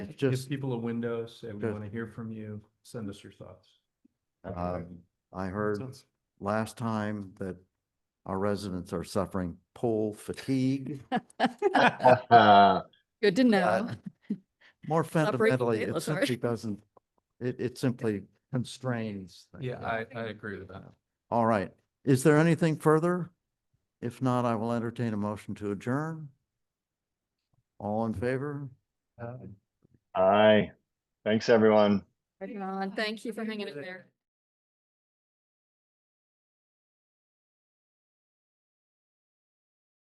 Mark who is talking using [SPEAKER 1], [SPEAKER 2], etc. [SPEAKER 1] Give
[SPEAKER 2] just,
[SPEAKER 1] people a window, say we
[SPEAKER 2] just-
[SPEAKER 1] want to hear from you, send us your thoughts.
[SPEAKER 2] Um, I heard last time that our residents are suffering pool fatigue,
[SPEAKER 3] Good to know.
[SPEAKER 2] more
[SPEAKER 3] Stop breaking
[SPEAKER 2] fundamentally, it
[SPEAKER 3] daylight, sorry.
[SPEAKER 2] simply doesn't, it, it simply constrains. things.
[SPEAKER 1] Yeah, I, I agree with that.
[SPEAKER 2] All right. Is there anything further? If not, I will entertain a motion to adjourn. All in favor?
[SPEAKER 1] Uh,
[SPEAKER 4] Aye. Thanks, everyone.
[SPEAKER 3] Right on. Thank you for hanging in there.